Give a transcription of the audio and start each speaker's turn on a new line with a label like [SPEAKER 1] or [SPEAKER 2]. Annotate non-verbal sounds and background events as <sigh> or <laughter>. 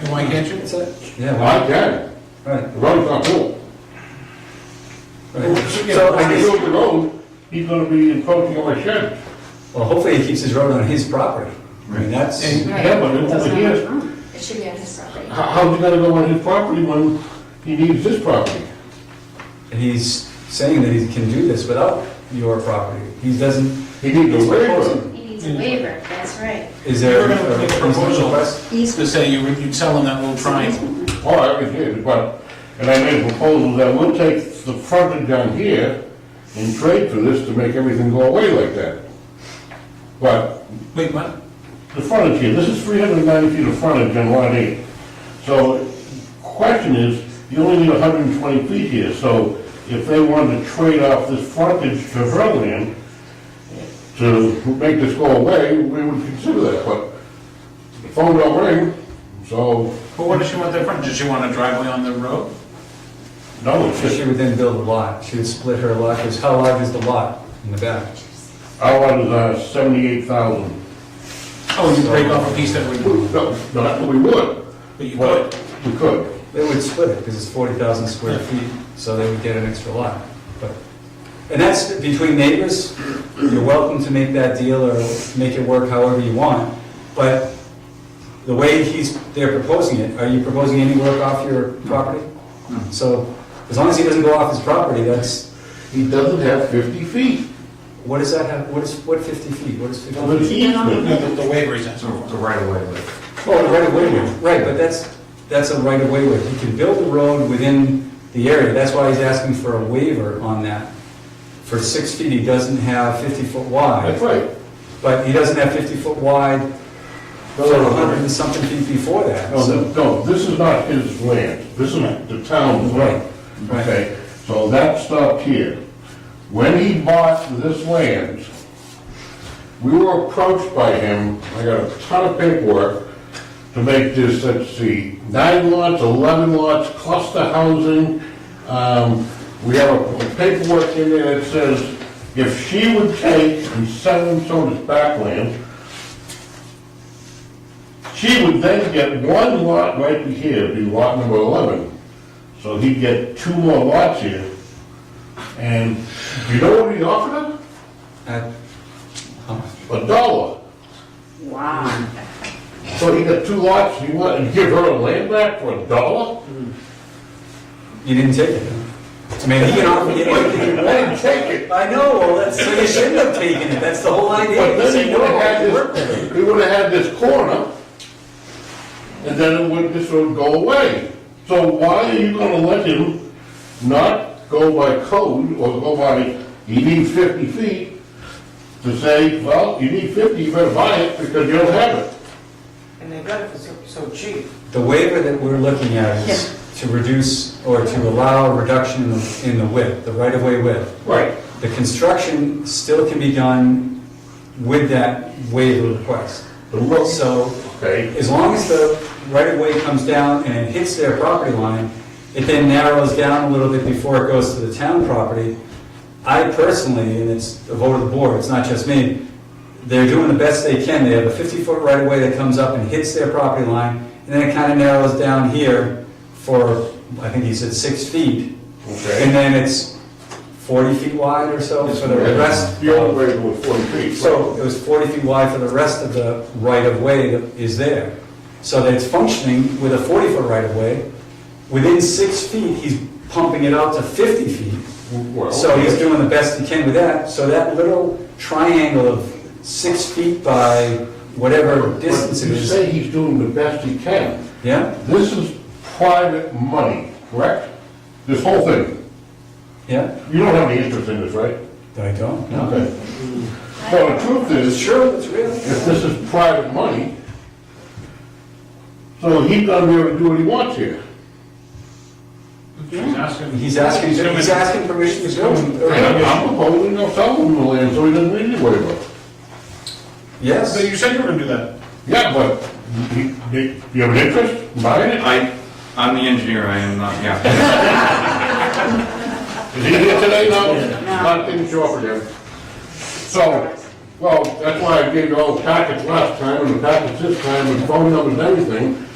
[SPEAKER 1] And why can't you? So
[SPEAKER 2] Yeah, why-
[SPEAKER 3] I can,
[SPEAKER 2] right,
[SPEAKER 3] the road's not full.
[SPEAKER 2] right.
[SPEAKER 1] So
[SPEAKER 3] When I build the road, he's gonna be encroaching on my shed.
[SPEAKER 2] Well, hopefully he keeps his road on his property. I mean, that's,
[SPEAKER 3] And-
[SPEAKER 4] Right.
[SPEAKER 3] Yeah, but it
[SPEAKER 4] Doesn't
[SPEAKER 3] over
[SPEAKER 4] have
[SPEAKER 3] here-
[SPEAKER 4] much room. It should be on his property.
[SPEAKER 3] How, how's he gonna go on his property when he needs his property?
[SPEAKER 2] and he's saying that he can do this without your property. He doesn't,
[SPEAKER 3] He needs
[SPEAKER 2] He's
[SPEAKER 3] a waiver.
[SPEAKER 2] proposing.
[SPEAKER 4] He needs a waiver, that's right.
[SPEAKER 2] is there?
[SPEAKER 1] We're gonna make a
[SPEAKER 2] is there
[SPEAKER 1] proposal.
[SPEAKER 2] request?
[SPEAKER 1] To say you, you tell them that little triangle.
[SPEAKER 3] Oh, I can hear it, but, and I made a proposal that we'll take the frontage down here and trade for this to make everything go away like that. But
[SPEAKER 1] Wait, what?
[SPEAKER 3] The frontage here, this is 390 feet of frontage on lot eight. So, question is, you only need 120 feet here, so if they wanted to trade off this frontage to her land to make this go away, we would consider that, but the phone don't ring, so,
[SPEAKER 1] But what does she want that front? Does she want a driveway on the road?
[SPEAKER 3] no, it's
[SPEAKER 2] She
[SPEAKER 3] just,
[SPEAKER 2] would then build a lot. She would split her lot, because how large is the lot in the back?
[SPEAKER 3] our lot is uh, 78,000.
[SPEAKER 1] Oh, you break off a piece that would,
[SPEAKER 3] No, no, we would,
[SPEAKER 1] but you
[SPEAKER 3] but
[SPEAKER 1] could.
[SPEAKER 3] we could.
[SPEAKER 2] They would split it, because it's 40,000 square feet, so they would get an extra lot. But And that's between neighbors, you're welcome to make that deal or make it work however you want, but the way he's, they're proposing it, are you proposing any work off your property? So, as long as he doesn't go off his property, that's,
[SPEAKER 3] He doesn't have 50 feet.
[SPEAKER 2] what does that have, what is, what 50 feet, what is 50 feet?
[SPEAKER 3] Well, he-
[SPEAKER 1] No, the- the waiver is,
[SPEAKER 5] So the right of way, like,
[SPEAKER 2] Oh, the right of way, width. right, but that's, that's a right of way width. He can build the road within the area, that's why he's asking for a waiver on that. For six feet, he doesn't have fifty foot wide,
[SPEAKER 3] That's right.
[SPEAKER 2] but he doesn't have fifty foot wide for a hundred and something feet before that,
[SPEAKER 3] Oh, No,
[SPEAKER 2] so.
[SPEAKER 3] th- no, this is not his land, this is the town's land.
[SPEAKER 2] Right.
[SPEAKER 3] Okay, so that stopped here. When he bought this land, we were approached by him, I got a ton of paperwork, to make this, let's see, nine lots, 11 lots, cluster housing. Um, We have a paperwork in there that says if she would take and sell him some of his backland, she would then get one lot right here, it'd be lot number 11. So he'd get two more lots here. And you know what he offered him?
[SPEAKER 2] At- how much?
[SPEAKER 3] A dollar.
[SPEAKER 4] Wow.
[SPEAKER 3] So he got two lots, you want, and give her a land back for a dollar?
[SPEAKER 2] You didn't take it, huh? I mean, he can offer you anything.
[SPEAKER 3] I didn't take it.
[SPEAKER 2] I know, well, that's, so you shouldn't have taken it, that's the whole idea.
[SPEAKER 3] But
[SPEAKER 2] You say,
[SPEAKER 3] then he
[SPEAKER 2] no,
[SPEAKER 3] would've
[SPEAKER 2] I'll
[SPEAKER 3] had
[SPEAKER 2] work with it.
[SPEAKER 3] this, he would've had this corner, and then it would, this would go away. So why are you gonna let him not go by code, or go by, he needs fifty feet, to say, well, you need fifty, you better buy it, because you don't have it?
[SPEAKER 6] And they got it for so- so cheap.
[SPEAKER 2] The waiver that we're looking at is to reduce or to allow a reduction in the- in the width, the right-of-way width.
[SPEAKER 3] Right.
[SPEAKER 2] The construction still can be done with that waiver request.
[SPEAKER 3] The road,
[SPEAKER 2] So
[SPEAKER 3] okay,
[SPEAKER 2] as long as the right-of-way comes down and it hits their property line, it then narrows down a little bit before it goes to the town property. I personally, and it's a vote of the board, it's not just me, they're doing the best they can. They have a 50-foot right-of-way that comes up and hits their property line, and then it kind of narrows down here for, I think he said, six feet.
[SPEAKER 3] okay.
[SPEAKER 2] And then it's 40 feet wide or so for the rest.
[SPEAKER 3] The only way to go is forty feet.
[SPEAKER 2] So it was 40 feet wide for the rest of the right-of-way that is there. So that it's functioning with a 40-foot right-of-way. Within six feet, he's pumping it out to 50 feet.
[SPEAKER 3] Well,
[SPEAKER 2] So he's
[SPEAKER 3] okay.
[SPEAKER 2] doing the best he can with that. So that little triangle of six feet by whatever
[SPEAKER 3] But
[SPEAKER 2] distance it
[SPEAKER 3] You
[SPEAKER 2] is.
[SPEAKER 3] say he's doing the best he can.
[SPEAKER 2] Yeah,
[SPEAKER 3] This is private money, correct? This whole thing.
[SPEAKER 2] yeah.
[SPEAKER 3] You don't have any interest in this, right?
[SPEAKER 2] I don't, no.
[SPEAKER 3] Okay. So the truth is,
[SPEAKER 2] Sure, it's real.
[SPEAKER 3] if this is private money, so he's gonna be able to do what he wants here.
[SPEAKER 1] she's asking.
[SPEAKER 2] He's asking, he's asking permission to build.
[SPEAKER 3] And I'm proposing they'll sell him the land, so he doesn't need any waiver.
[SPEAKER 2] Yes.
[SPEAKER 1] But you said you were gonna do that.
[SPEAKER 3] Yeah, but he- he- you have an interest in buying it?
[SPEAKER 5] I, I'm the engineer, I am not, yeah.
[SPEAKER 3] <laughs> Is he here today? No, not in short for him. So, well, that's why I gave you all the packets last time, and the packets this time, and phone numbers and everything,